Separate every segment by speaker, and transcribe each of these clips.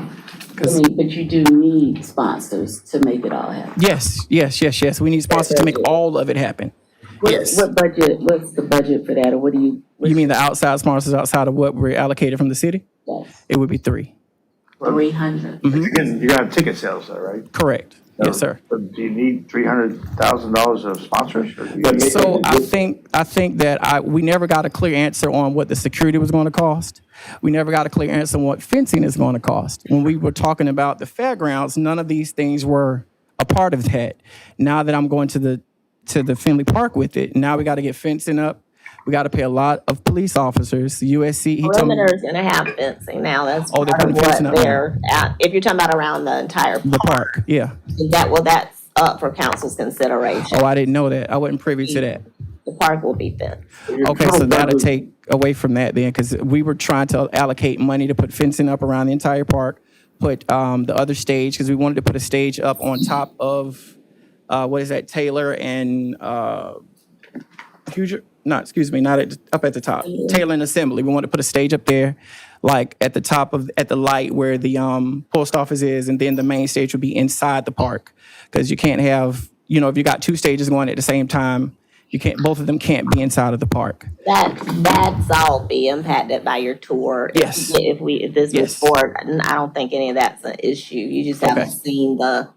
Speaker 1: I
Speaker 2: Because
Speaker 1: mean, but you do need sponsors to make it all happen.
Speaker 2: yes, yes, yes, yes, we need sponsors to make all of it happen.
Speaker 1: What-
Speaker 2: Yes.
Speaker 1: What budget, what's the budget for that, or what do you?
Speaker 2: You mean the outside sponsors outside of what we're allocated from the city? It would be three.
Speaker 1: Three hundred?
Speaker 2: Mm-hmm.
Speaker 3: You're gonna- You're gonna have ticket sales though, right?
Speaker 2: Correct. Yes, sir.
Speaker 3: So Do you need three hundred thousand dollars of sponsors? or do you-
Speaker 2: So I think, I think that I, we never got a clear answer on what the security was going to cost. We never got a clear answer on what fencing is going to cost. When we were talking about the fairgrounds, none of these things were a part of that. Now that I'm going to the, to the Finley Park with it, now we got to get fencing up. We got to pay a lot of police officers, USC, he told me,
Speaker 4: Perimeter's gonna have fencing now, that's
Speaker 2: Oh,
Speaker 4: part
Speaker 2: they're
Speaker 4: of
Speaker 2: putting fencing
Speaker 4: what
Speaker 2: up now.
Speaker 4: they're, at. if you're talking about around the entire,
Speaker 2: the park, yeah.
Speaker 4: that, well, that's up for council's consideration.
Speaker 2: Oh, I didn't know that. I wasn't privy to that.
Speaker 4: The park will be fenced.
Speaker 2: Okay, so that'll take away from that then, because we were trying to allocate money to put fencing up around the entire park, put um, the other stage, because we wanted to put a stage up on top of, uh, what is that, Taylor and uh, Huger? No, excuse me, not at, up at the top, Taylor and Assembly. We wanted to put a stage up there, like at the top of, at the light where the um, post office is, and then the main stage would be inside the park, because you can't have, you know, if you got two stages going at the same time, you can't, both of them can't be inside of the park.
Speaker 4: That, that's all be impacted by your tour. If-
Speaker 2: Yes.
Speaker 4: If we, if this
Speaker 2: Yes.
Speaker 4: was forward, and I don't think any of that's an issue, you just haven't
Speaker 2: Okay.
Speaker 4: seen the,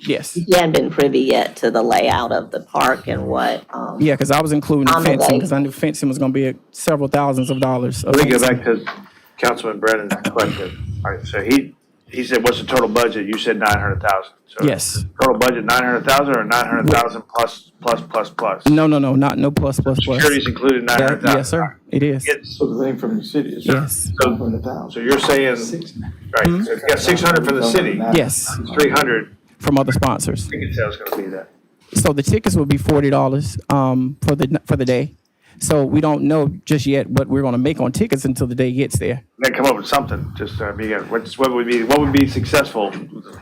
Speaker 2: Yes.
Speaker 4: you haven't been privy yet to the layout of the park and what, um,
Speaker 2: Yeah, because I was including
Speaker 4: On the
Speaker 2: fencing,
Speaker 4: way.
Speaker 2: because I knew fencing was gonna be a- several thousands of dollars. of
Speaker 3: Let me go
Speaker 2: fencing.
Speaker 3: back to Councilman Brennan's question. All right, so he, he said, what's the total budget? You said nine hundred thousand.
Speaker 2: Yes.
Speaker 3: Total budget, nine hundred thousand or nine hundred thousand plus, plus, plus, plus?
Speaker 2: No, no, no, not, no plus, plus, plus.
Speaker 3: Security's included nine
Speaker 2: That-
Speaker 3: hundred thousand?
Speaker 2: Yes, sir, it is.
Speaker 5: So the thing from the city is.
Speaker 2: Yes.
Speaker 5: From the town.
Speaker 3: So you're saying, right, so if you got six hundred from the city,
Speaker 2: Yes,
Speaker 3: three hundred,
Speaker 2: from other sponsors.
Speaker 3: ticket sales gonna be that.
Speaker 2: So the tickets will be forty dollars, um, for the, for the day. So we don't know just yet what we're gonna make on tickets until the day gets there.
Speaker 3: They come up with something, just, uh, be, uh, what's, what would be, what would be successful,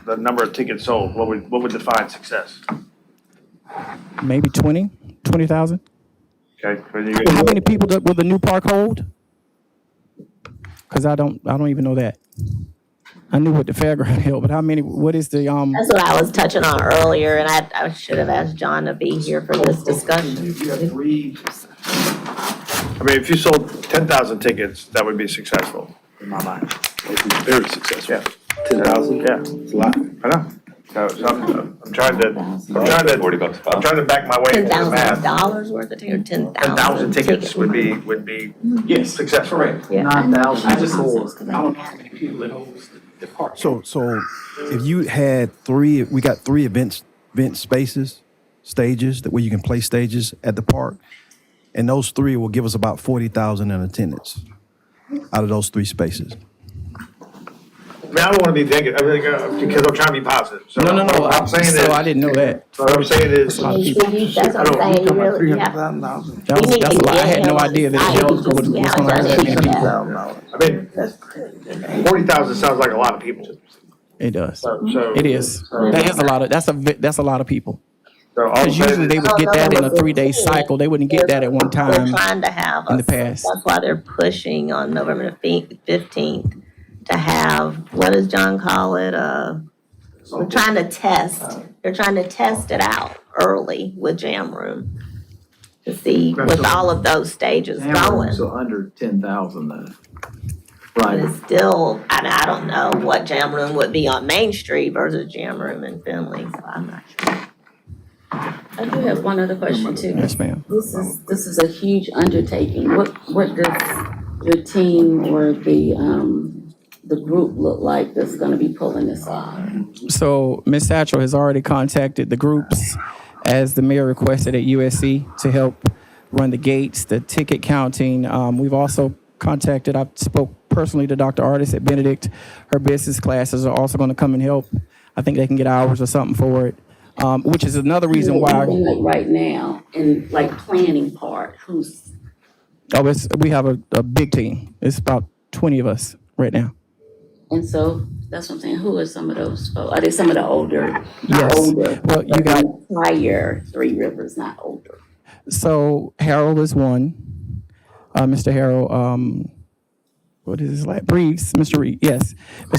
Speaker 3: the number of tickets sold, what would, what would define success?
Speaker 2: Maybe twenty, twenty thousand?
Speaker 3: Okay, when you,
Speaker 2: How many people do- will the new park hold? Because I don't, I don't even know that. I knew what the fairground held, but how many, what is the, um?
Speaker 4: that's what I was touching on earlier, and I, I should have asked John to be here for this discussion.
Speaker 5: If you have three,
Speaker 3: I mean, if you sold ten thousand tickets, that would be successful, in my mind.
Speaker 6: Very successful.
Speaker 3: Yeah,
Speaker 6: Ten thousand?
Speaker 3: yeah,
Speaker 6: It's a lot.
Speaker 3: I know. So, so I'm, I'm trying to, I'm trying
Speaker 7: Forty
Speaker 3: to,
Speaker 7: bucks a
Speaker 3: I'm
Speaker 7: pop.
Speaker 3: trying to back my way
Speaker 4: Ten
Speaker 3: into the math.
Speaker 4: thousand dollars worth of tickets, ten thousand.
Speaker 3: Ten thousand tickets would be, would be
Speaker 2: Yes.
Speaker 3: successful. Correct.
Speaker 5: nine
Speaker 1: I just-
Speaker 5: thousand four.
Speaker 8: So, so if you had three, we got three events, event spaces, stages that where you can play stages at the park, and those three will give us about forty thousand in attendance out of those three spaces.
Speaker 3: I mean, I don't wanna be negative, I mean, uh, because I'm trying to be positive, so.
Speaker 2: No, no, no,
Speaker 3: What
Speaker 2: I-
Speaker 3: I'm saying
Speaker 2: so I
Speaker 3: is,
Speaker 2: didn't know that.
Speaker 3: what I'm saying is,
Speaker 2: lot of
Speaker 4: You
Speaker 2: people.
Speaker 4: should be- That's what I'm saying, you really, you have.
Speaker 2: That
Speaker 4: we
Speaker 2: was,
Speaker 4: need
Speaker 2: that's
Speaker 4: to
Speaker 2: a lot. I
Speaker 4: get
Speaker 2: had
Speaker 4: him
Speaker 2: no
Speaker 4: on
Speaker 2: idea that
Speaker 4: side
Speaker 2: it
Speaker 4: and
Speaker 2: was,
Speaker 4: just
Speaker 2: was
Speaker 4: see
Speaker 2: was
Speaker 4: how
Speaker 2: gonna
Speaker 4: it
Speaker 2: have that many
Speaker 4: does.
Speaker 2: people.
Speaker 3: I mean, forty thousand sounds like a lot of people,
Speaker 2: It does.
Speaker 3: so. so-
Speaker 2: It is. That is a lot of, that's a, vi- that's a lot of people.
Speaker 3: So all I'm
Speaker 2: Because
Speaker 3: saying
Speaker 2: usually
Speaker 3: is-
Speaker 2: they would get that in a three-day cycle. They wouldn't get that at one
Speaker 4: They're
Speaker 2: time.
Speaker 4: trying to have.
Speaker 2: in the
Speaker 4: us-
Speaker 2: past.
Speaker 4: That's why they're pushing on November fifteenth to have, what does John call it, uh, we're trying to test, they're trying to test it out early with Jam Room. To see with all of those stages going.
Speaker 5: So under ten thousand though.
Speaker 4: But
Speaker 5: Right.
Speaker 4: it's still, I mean, I don't know what jam room would be on Main Street versus jam room in Finley, so I'm not sure.
Speaker 1: I do have one other question too.
Speaker 2: Yes, ma'am.
Speaker 1: This is, this is a huge undertaking. What, what does your team or the, um, the group look like that's gonna be pulling this off?
Speaker 2: So Ms. Satchel has already contacted the groups as the mayor requested at USC to help run the gates, the ticket counting. Um, we've also contacted, I spoke personally to Dr. Artis at Benedict. Her business classes are also going to come and help. I think they can get hours or something for it, um, which is another reason why.
Speaker 1: Like right now, in like planning part, who's,
Speaker 2: Oh, it's, we have a, a big team. It's about 20 of us right now.
Speaker 1: and so, that's what I'm saying, who are some of those, folks? are they some of the older?
Speaker 2: Yes.
Speaker 1: older,
Speaker 2: Well, you got-
Speaker 1: Prior Three Rivers, not older.
Speaker 2: So Harold is one. Uh, Mr. Harold, um, what is his last? Reeves, Mr. Reeves, yes.